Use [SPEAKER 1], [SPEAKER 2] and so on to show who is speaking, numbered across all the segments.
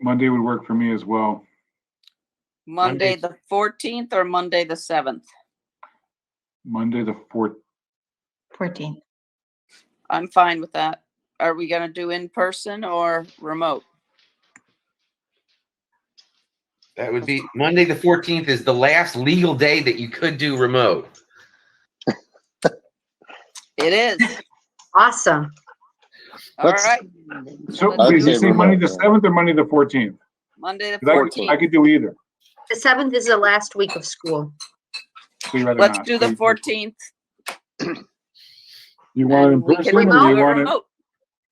[SPEAKER 1] Monday would work for me as well.
[SPEAKER 2] Monday,
[SPEAKER 3] Monday.
[SPEAKER 2] the fourteenth or Monday, the seventh?
[SPEAKER 1] Monday, the fourth,
[SPEAKER 4] 14th.
[SPEAKER 2] I'm fine with that. Are we gonna do in person or remote?
[SPEAKER 3] That would be Monday, the fourteenth is the last legal day that you could do remote.
[SPEAKER 2] It is.
[SPEAKER 5] Awesome.
[SPEAKER 2] All
[SPEAKER 6] Let's-
[SPEAKER 2] right,
[SPEAKER 1] so
[SPEAKER 2] I'd
[SPEAKER 1] did you
[SPEAKER 2] say
[SPEAKER 1] say Monday the
[SPEAKER 6] remote, yeah.
[SPEAKER 1] seventh or Monday the fourteenth?
[SPEAKER 2] Monday, the
[SPEAKER 1] I could, I
[SPEAKER 2] fourteenth.
[SPEAKER 1] could do either.
[SPEAKER 5] The seventh is the last week of school.
[SPEAKER 1] so you'd rather
[SPEAKER 2] Let's
[SPEAKER 1] not.
[SPEAKER 2] do
[SPEAKER 1] So
[SPEAKER 2] the
[SPEAKER 1] you-
[SPEAKER 2] fourteenth.
[SPEAKER 1] You want it in person or do you want it,
[SPEAKER 2] remote.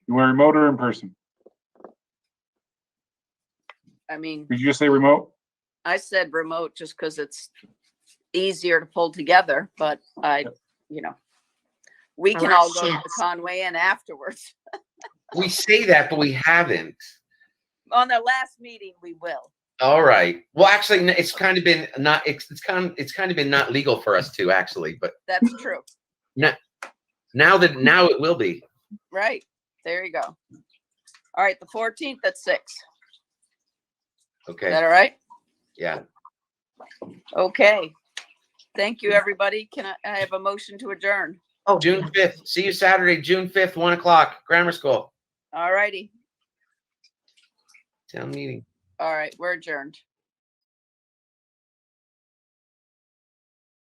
[SPEAKER 1] you want remote or in person?
[SPEAKER 2] I mean,
[SPEAKER 1] Did you just say remote?
[SPEAKER 2] I said remote just because it's easier to pull together, but I, you know. We can all go to the
[SPEAKER 5] Yes.
[SPEAKER 2] Conway Inn afterwards.
[SPEAKER 3] We say that, but we haven't.
[SPEAKER 2] On their last meeting, we will.
[SPEAKER 3] All right. Well, actually, n- it's kind of been not. It's it's kind it's kind of been not legal for us to actually, but
[SPEAKER 2] That's true.
[SPEAKER 3] now that now it will be.
[SPEAKER 2] Right. There you go. All right, the fourteenth at six. Is
[SPEAKER 3] Okay.
[SPEAKER 2] that all right?
[SPEAKER 3] Yeah.
[SPEAKER 2] Okay. Thank you, everybody. Can I, I have a motion to adjourn?
[SPEAKER 5] Oh,
[SPEAKER 3] June fifth. See you Saturday, June fifth, one o'clock, grammar school
[SPEAKER 2] All righty.
[SPEAKER 3] town meeting.
[SPEAKER 2] All right, we're adjourned.